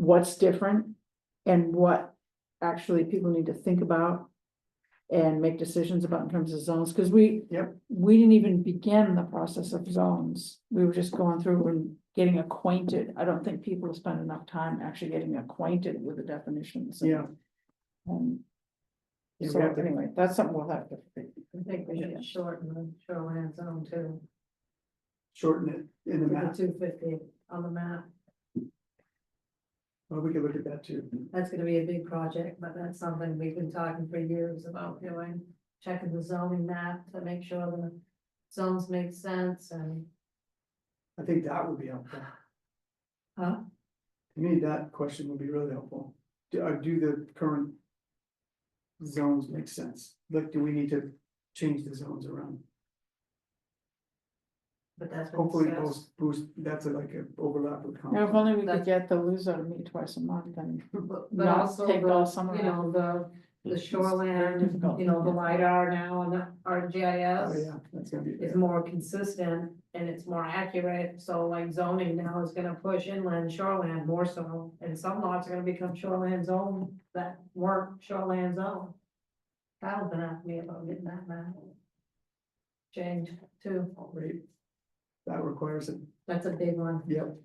what's different and what actually people need to think about and make decisions about in terms of zones, because we Yep. we didn't even begin the process of zones. We were just going through and getting acquainted. I don't think people spend enough time actually getting acquainted with the definitions. Yeah. Um, Yeah, we so have to- anyway, that's something we'll have to. I think we Yeah. should shorten the shoreline zone too, Shorten it in to the the map, two fifty on the map. well, we could look at that too. That's gonna be a big project, but that's something we've been talking for years about doing, checking the zoning map to make sure the zones make sense and, I think that would be helpful. huh? To me, that question would be really helpful. Do, uh, do the current zones make sense? Like, do we need to change the zones around? But that's been Hopefully, discussed. boost, boost, that's like an overlap with. Now, if comp. only we could That's- get the Luso to meet twice a month and But but not also the, take all summer you know, the, the shoreline, difficult. you know, the LiDAR now and the Oh, RGIS. yeah, that's gonna be, is more consistent and it's more accurate, so like zoning now is gonna push inland shoreland more so. And some lots are gonna become shoreland zone that weren't shoreland zone. Kyle's been asking me about getting that map. Changed too, great. That requires it, that's a big one. yep.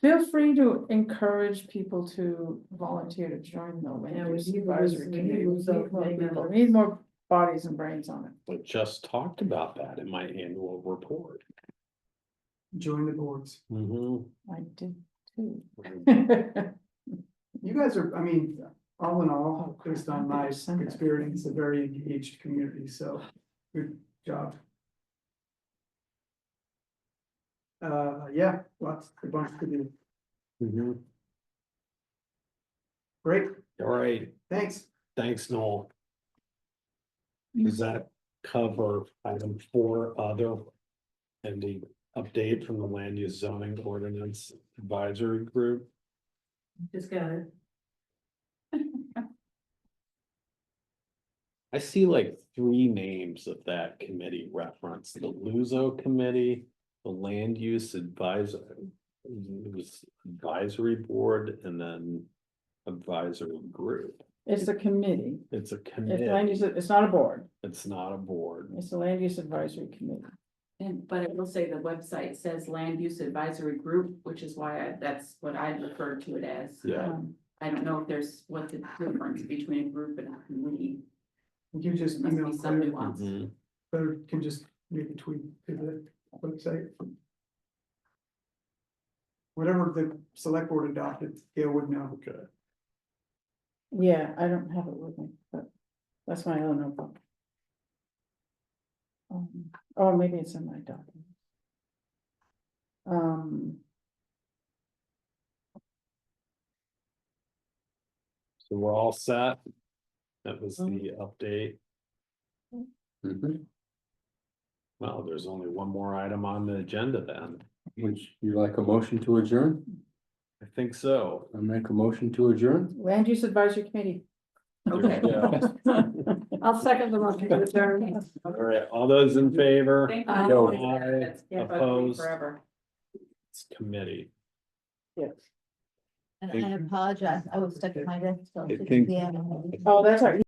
Feel free to encourage people to volunteer to join the land Yeah, we use need to advisory lose- we committee. need to We lose those need more big people. numbers. We Need more bodies and brains on it. But just talked about that in my annual report. Join the boards. I did too. You guys are, I mean, all in all, Oh, crap, based on I my better send that. experience, a very engaged community, so good job. Uh, yeah, lots, a bunch to do. Mhm. Great, All right, thanks. thanks, Noel. Does that cover item four other? And the update from the land use zoning ordinance advisory group? Just got it. I see like three names of that committee referenced, the Luso Committee, the Land Use Advisor. It was advisory board and then advisory group. It's a committee. It's a It's committee, land use, it's not a board. it's not a board. It's a land use advisory committee. And, but I will say the website says land use advisory group, which is why I, that's what I referred to it as. Yeah. Um, I don't know if there's, what the difference between a group and a committee, You just There must email be some Claire, nuance. Mm-hmm. Claire can just make a tweet to the website. Whatever the select board adopted, Gail would know. Okay. Yeah, I don't have it with me, but that's my own notebook. Um, or maybe it's in my document. Um, So we're all set. That was Oh. the update. Mm-hmm. Well, there's only one more item on the agenda then. Would you like a motion to adjourn? I think so. I make a motion to adjourn? land use advisory committee. Okay. I'll second the motion to adjourn. All right, all those in favor? Thank Uh, you. Aye, That's- that's bugged me opposed. Forever. It's committee. Yes. And Thank I apologize, I was stuck at my desk. so I six think- p.m. Oh, that's right.